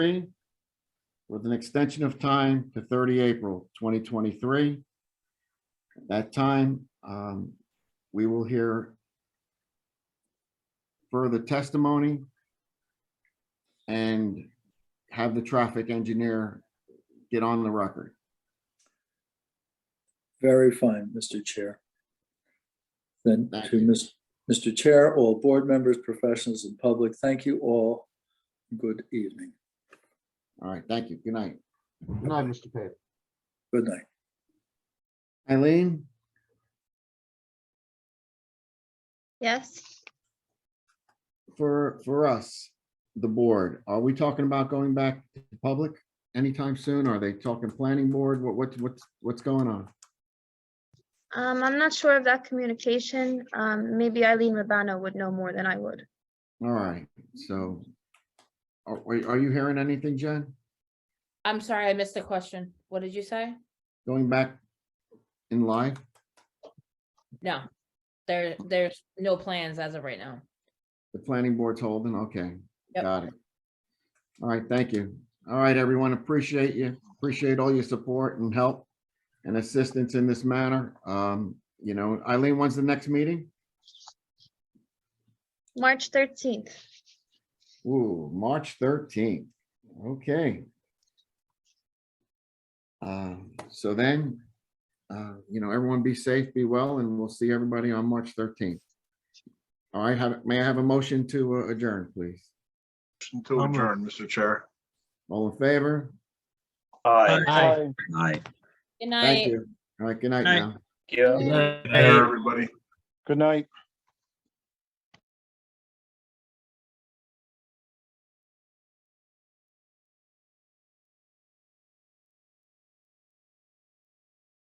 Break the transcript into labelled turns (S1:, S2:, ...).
S1: three with an extension of time to thirty April twenty twenty-three. That time, um, we will hear further testimony and have the traffic engineer get on the record.
S2: Very fine, Mr. Chair. Then
S1: Thank
S2: to
S1: you.
S2: Ms- Mr. Chair, all board members, professionals and public, thank you all. Good evening.
S1: All right, thank you. Good night.
S3: Good night, Mr. Pate.
S2: Good night.
S1: Eileen,
S4: Yes,
S1: for, for us, the board, are we talking about going back to public anytime soon? Are they talking planning board? What, what, what's, what's going on?
S4: um, I'm not sure of that communication. Um, maybe Eileen Rabano would know more than I would.
S1: All right, so are, are are you hearing anything, Jen?
S5: I'm sorry, I missed the question. What did you say?
S1: Going back in live?
S5: No, there, there's no plans as of right now.
S1: The planning board's holding, okay.
S5: Yep.
S1: Got it. All right, thank you. All right, everyone, appreciate you. Appreciate all your support and help and assistance in this manner. Um, you know, Eileen, when's the next meeting?
S4: March thirteenth.
S1: Ooh, March thirteenth. Okay. Uh, so then, uh, you know, everyone be safe, be well, and we'll see everybody on March thirteenth. All right, have, may I have a motion to uh, adjourn, please?
S6: Motion To adjourn, Mr. Chair.
S1: All in favor?
S7: Aye.
S6: Aye.
S1: Thank
S5: Good night.
S1: you. All right, good night
S7: Night.
S1: now.
S6: Good night, everybody.
S3: Good night.